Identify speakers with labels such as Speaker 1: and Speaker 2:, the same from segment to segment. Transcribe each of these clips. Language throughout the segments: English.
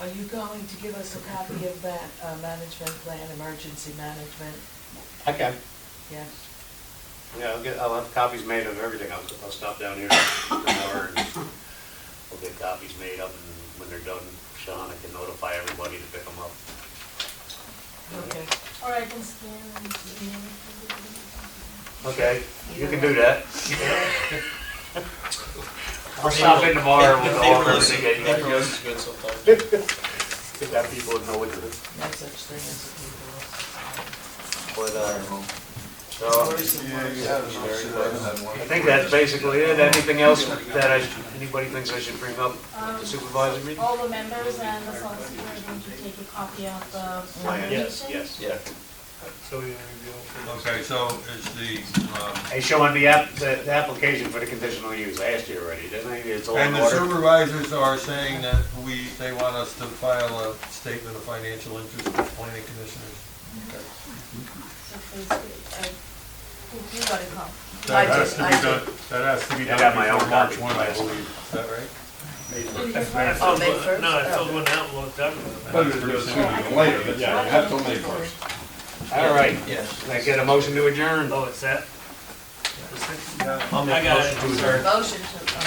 Speaker 1: Are you going to give us a copy of that uh, management plan, emergency management?
Speaker 2: I can,
Speaker 1: Yes.
Speaker 2: yeah, I'll get, I'll have copies made of everything, I'll, I'll stop down here for an hour and we'll get copies made up and when they're done, Sean, I can notify everybody to pick them up.
Speaker 1: Okay.
Speaker 3: Or I can scan and email it.
Speaker 2: Okay, you can do that. I'll stop in tomorrow and we'll go over everything.
Speaker 4: Paper
Speaker 2: again.
Speaker 4: list is good sometimes.
Speaker 2: Get that people to know what to do.
Speaker 1: No such thing as a people.
Speaker 2: But, uh, so,
Speaker 5: Yeah, you had enough, so I had one.
Speaker 2: I think that's basically it. Anything else that I, anybody thinks I should bring up at the supervisor meeting?
Speaker 3: All the members and the solicitor are going to take a copy of the
Speaker 1: Plan.
Speaker 2: Yes,
Speaker 3: presentation.
Speaker 2: yes.
Speaker 4: Yeah.
Speaker 5: Okay, so it's the, um,
Speaker 2: Hey, showing the app, the, the application for the conditional use. I asked you already, didn't I? It's all in
Speaker 5: and the
Speaker 2: order.
Speaker 5: supervisors are saying that we, they want us to file a statement of financial interest with planning commissioners.
Speaker 3: So please, uh, who- you gotta come.
Speaker 1: I
Speaker 5: That has
Speaker 1: did-
Speaker 5: to
Speaker 1: I
Speaker 5: be
Speaker 1: did.
Speaker 5: done, that has to be
Speaker 2: I
Speaker 5: done
Speaker 2: got my
Speaker 5: before
Speaker 2: own
Speaker 5: March
Speaker 2: copy.
Speaker 5: one, I believe, is that right?
Speaker 6: I
Speaker 1: Oh,
Speaker 6: filled
Speaker 1: May
Speaker 6: one-
Speaker 1: first?
Speaker 6: No, I
Speaker 1: Oh.
Speaker 6: filled one out and looked up.
Speaker 5: Better do it sooner than later, that's
Speaker 3: Yeah,
Speaker 5: right.
Speaker 3: have till May first.
Speaker 2: All right.
Speaker 4: Yes.
Speaker 2: Can I get a motion to adjourn?
Speaker 6: Oh, it's that?
Speaker 4: I'll
Speaker 6: I
Speaker 4: make
Speaker 6: got
Speaker 4: a
Speaker 6: it.
Speaker 4: motion to adjourn.
Speaker 1: Motion to, uh,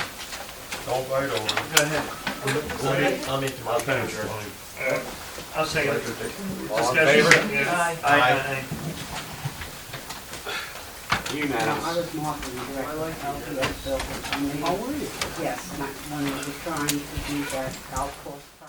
Speaker 5: Don't bite over it.
Speaker 6: Go ahead.
Speaker 4: I'll make the
Speaker 5: I'll
Speaker 4: motion to
Speaker 5: finish
Speaker 4: adjourn.
Speaker 5: mine.
Speaker 6: I'll second. it.
Speaker 2: All in
Speaker 6: Discussion?
Speaker 2: favor?
Speaker 6: Yeah.
Speaker 1: Aye.
Speaker 6: Aye.
Speaker 7: I
Speaker 2: Unanimous.
Speaker 7: was mocking the director of health and that building. How were you? Yes, my- when we were trying to do that golf course.